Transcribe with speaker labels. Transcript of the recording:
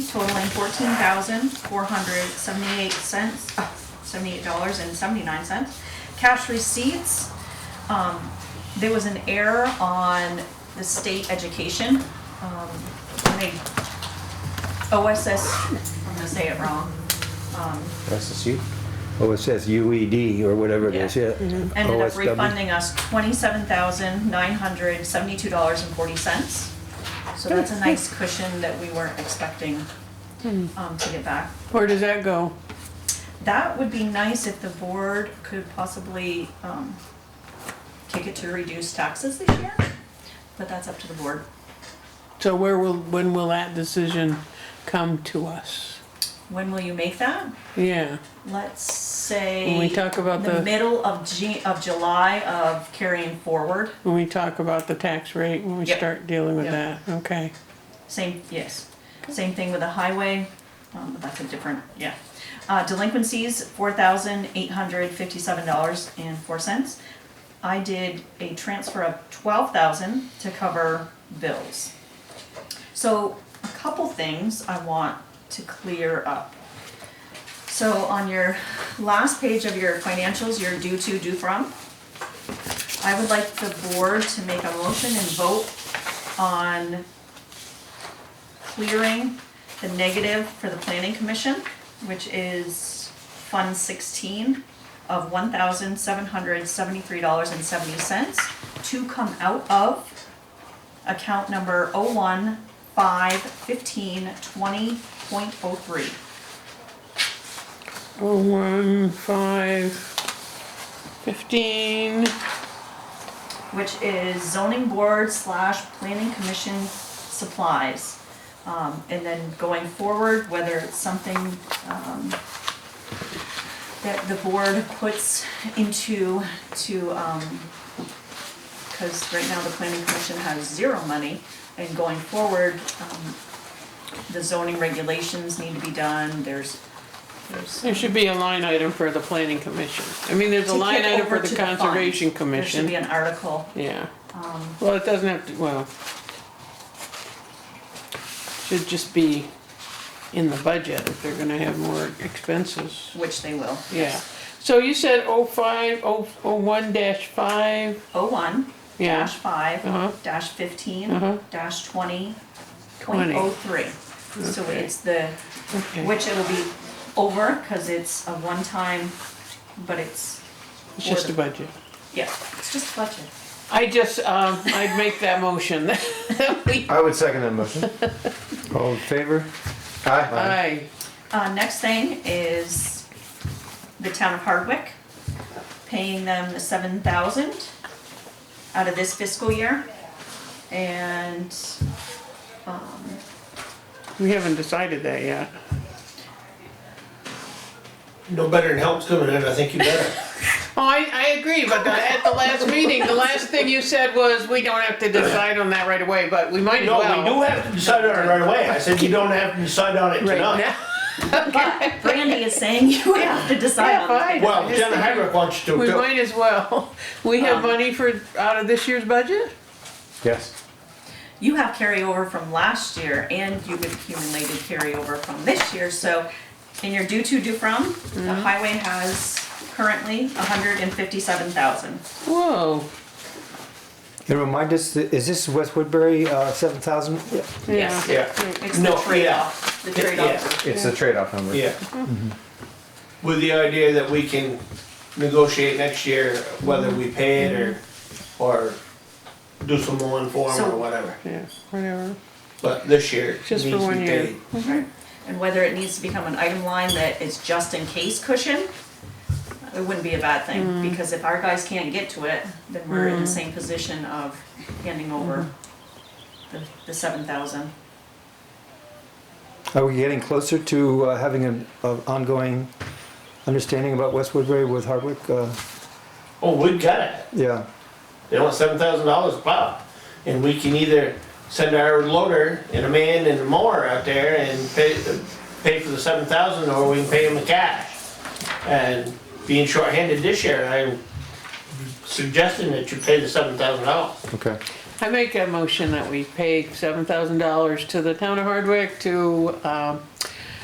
Speaker 1: totaling fourteen thousand four hundred seventy-eight cents, seventy-eight dollars and seventy-nine cents. Cash receipts, um, there was an error on the state education. Um, when they, OSS, I'm gonna say it wrong. Um,
Speaker 2: SSU? Oh, it says UED or whatever it is,
Speaker 1: Yeah. Mm-hmm.
Speaker 2: yeah.
Speaker 1: ended up
Speaker 2: OSW.
Speaker 1: refunding us twenty-seven thousand nine hundred seventy-two dollars and forty cents. So that's a nice cushion that we weren't expecting um, to get back.
Speaker 3: Where does that go?
Speaker 1: That would be nice if the board could possibly um, kick it to reduce taxes this year, but that's up to the board.
Speaker 3: So where will, when will that decision come to us?
Speaker 1: When will you make that?
Speaker 3: Yeah,
Speaker 1: Let's say.
Speaker 3: When we talk about the-
Speaker 1: middle of Ju- of July of carrying forward,
Speaker 3: when we talk about the tax rate, when we
Speaker 1: Yep.
Speaker 3: start dealing with that,
Speaker 1: Yep.
Speaker 3: okay.
Speaker 1: same, yes, same thing with the highway, um, but that's a different, yeah. Uh, delinquencies, four thousand eight hundred fifty-seven dollars and four cents. I did a transfer of twelve thousand to cover bills. So a couple things I want to clear up. So on your last page of your financials, your due to, due from, I would like the board to make a motion and vote on clearing the negative for the planning commission, which is Fund sixteen of one thousand seven hundred seventy-three dollars and seventy cents to come out of account number oh one five fifteen twenty point oh three.
Speaker 3: Oh, one, five, fifteen,
Speaker 1: which is zoning board slash planning commission supplies. Um, and then going forward, whether it's something, um, that the board puts into, to, um, cause right now the planning commission has zero money, and going forward, um, the zoning regulations need to be done, there's, there's.
Speaker 3: there should be a line item for the planning commission. I mean, there's a
Speaker 1: To
Speaker 3: line
Speaker 1: kick
Speaker 3: item for
Speaker 1: over
Speaker 3: the
Speaker 1: to fund.
Speaker 3: conservation
Speaker 1: There should be Um,
Speaker 3: commission,
Speaker 1: an article
Speaker 3: yeah. Well, it doesn't have to, well. Should just be in the budget if they're gonna have more expenses.
Speaker 1: which they will.
Speaker 3: Yeah, so you said oh five, oh, oh one dash five,
Speaker 1: Oh one,
Speaker 3: Yeah.
Speaker 1: dash five,
Speaker 3: Uh-huh.
Speaker 1: dash fifteen,
Speaker 3: Uh-huh.
Speaker 1: dash twenty, point
Speaker 3: 20.
Speaker 1: oh three. So
Speaker 3: Okay.
Speaker 1: it's the,
Speaker 3: okay.
Speaker 1: which it'll be over, cause it's a one-time, but it's,
Speaker 3: It's just a budget.
Speaker 1: yeah, it's just budget.
Speaker 3: I just, um, I'd make that motion.
Speaker 4: I would second that motion.
Speaker 2: All in favor?
Speaker 4: Aye.
Speaker 3: Aye,
Speaker 1: Uh, next thing is the town of Hardwick, paying them the seven thousand out of this fiscal year. And, um,
Speaker 3: we haven't decided that yet.
Speaker 5: No better than help's coming in, I think you better.
Speaker 3: Oh, I, I agree, but the- at the last meeting, the last thing you said was, we don't have to decide on that right away, but we might as
Speaker 5: No,
Speaker 3: well.
Speaker 5: we do have to decide on it right away. I said you don't have to decide on it
Speaker 3: Right
Speaker 5: tonight.
Speaker 3: now,
Speaker 1: but Brandy is saying you have to decide
Speaker 3: yeah,
Speaker 1: on that.
Speaker 3: fine.
Speaker 5: Well,
Speaker 3: I just
Speaker 5: Jenna
Speaker 3: think
Speaker 5: Heinrich wants you to
Speaker 3: We
Speaker 5: too.
Speaker 3: might as well. We have
Speaker 1: Um,
Speaker 3: money for, out of this year's budget?
Speaker 2: Yes.
Speaker 1: you have carryover from last year and you've accumulated carryover from this year, so in your due to, due from, the highway has currently hundred and fifty-seven thousand.
Speaker 3: Whoa,
Speaker 2: And remind us, is this West Woodbury, uh, seven thousand?
Speaker 3: yeah.
Speaker 5: Yeah,
Speaker 1: It's the
Speaker 5: No, yeah.
Speaker 1: trade-off, the trade-off.
Speaker 2: It's the trade-off number.
Speaker 5: yeah. Mm-hmm. With the idea that we can negotiate next year whether we pay it or, or do some more inform
Speaker 1: So-
Speaker 5: or whatever.
Speaker 3: Yeah, whatever.
Speaker 5: But this year, it
Speaker 3: Just
Speaker 5: needs
Speaker 3: for
Speaker 5: to
Speaker 3: one
Speaker 5: be
Speaker 3: year.
Speaker 5: paid.
Speaker 1: Right. And whether it needs to become an item line that is just in case cushion, it wouldn't be a bad thing, because if our guys can't get to it, then we're in the same position of handing over the, the seven thousand.
Speaker 2: Are we getting closer to uh, having an uh, ongoing understanding about West Woodbury with Hardwick? Uh,
Speaker 5: Oh, we got it.
Speaker 2: Yeah,
Speaker 5: They want seven thousand dollars plowed. And we can either send our loader and a man and a mower out there and pay, pay for the seven thousand, or we can pay them in cash. And being shorthanded this year, I'm suggesting that you pay the seven thousand dollars.
Speaker 2: okay.
Speaker 3: I make a motion that we pay seven thousand dollars to the town of Hardwick to, um,